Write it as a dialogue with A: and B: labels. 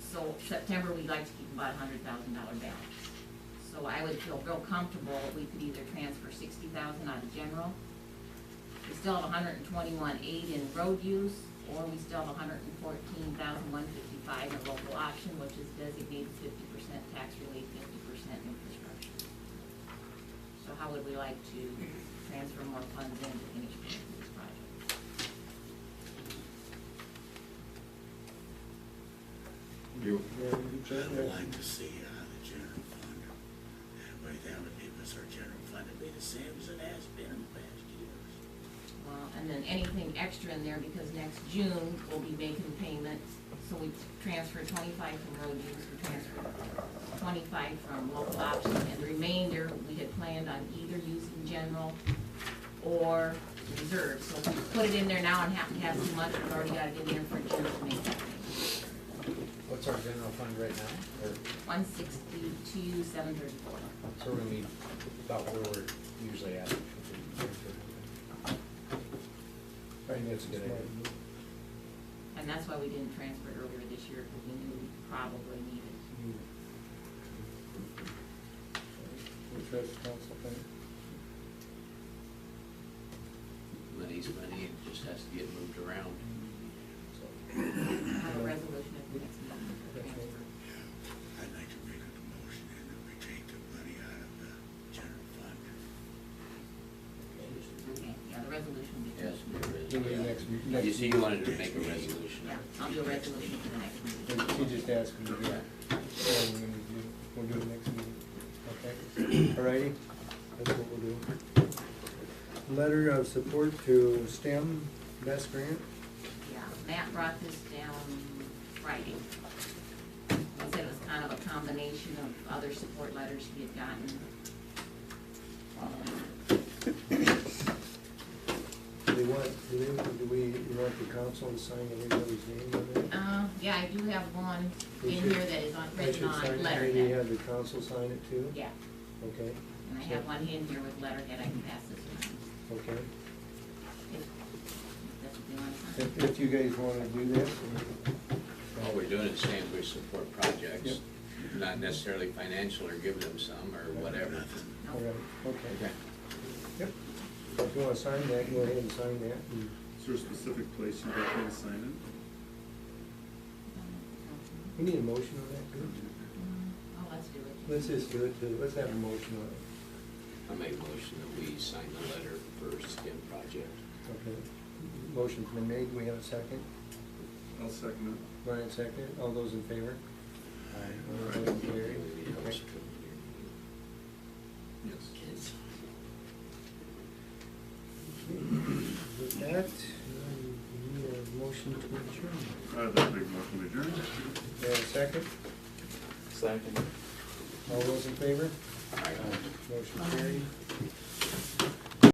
A: So September, we'd like to keep about a hundred thousand dollar balance. So I would feel real comfortable if we could either transfer sixty thousand out of general. We still have a hundred and twenty-one eight in road use, or we still have a hundred and fourteen thousand one fifty-five in local option, which is designated fifty percent tax relief, fifty percent infrastructure. So how would we like to transfer more funds in to finish both these projects?
B: You,
C: I would like to see it on the general fund, and by that would give us our general fund to be the same as it has been in the past years.
A: Well, and then anything extra in there, because next June, we'll be making payments, so we transfer twenty-five from road use, we transfer twenty-five from local option, and the remainder, we had planned on either using general or reserve, so if we put it in there now and happen to have too much, we've already got it in there for June to make that payment.
D: What's our general fund right now? Or,
A: One sixty-two, seven thirty-four.
D: so we're gonna be about where we're usually at. I think that's a good idea.
A: And that's why we didn't transfer it earlier this year, because we knew we probably needed.
B: which has council thing?
E: Money's money, it just has to get moved around.
A: Have a resolution at the next meeting for transfer.
C: I'd like to make a motion and that we take the money out of the general fund.
A: Okay, yeah, the resolution will be.
E: Yes, there is.
B: Do we next, next?
E: You see, you wanted to make a resolution.
A: Yeah, I'll do a resolution for the next meeting.
B: She just asked me to do it. So we're gonna do, we'll do it next meeting, okay? Alrighty, that's what we'll do. Letter of support to STEM Best Grant,
A: Yeah, Matt brought this down Friday. He said it was kind of a combination of other support letters he had gotten. Um,
B: do they want, do they, do we, you want the council to sign everybody's name on it?
A: Uh, yeah, I do have one in
B: We should-
A: here that is on,
B: I
A: written
B: should sign
A: on
B: it, Maybe
A: letterhead.
B: have the council sign it too?
A: Yeah,
B: Okay,
A: and I have one in here with letterhead, I can pass this one.
B: okay.
A: if- if That's what they want to sign.
B: If, if you guys wanna do that.
E: All we're doing is saying we support
B: Yep.
E: projects, not necessarily financial or give them some or whatever.
C: Nothing.
A: No.
B: Alright, okay.
E: Okay.
B: Yep. If you wanna sign that, go ahead and sign that. and-
F: Is there a specific place you'd like me to sign
B: We need a motion on that, too.
A: Um, Oh, let's do it.
B: Let's just do it, too. let's have a motion on it.
E: I make a motion that we sign the letter for STEM project.
B: Okay. Motion's been made, we have a second.
F: it? I'll second it.
B: Brian second, all those in favor? Aye. All those
E: Maybe
B: carried.
E: it helps.
B: Okay.
F: Yes.
B: With that, um, we need a motion to adjourn.
F: I'd like to make a motion to adjourn.
B: We have a second,
D: Second.
B: all those in favor?
E: All right.
B: Motion carried.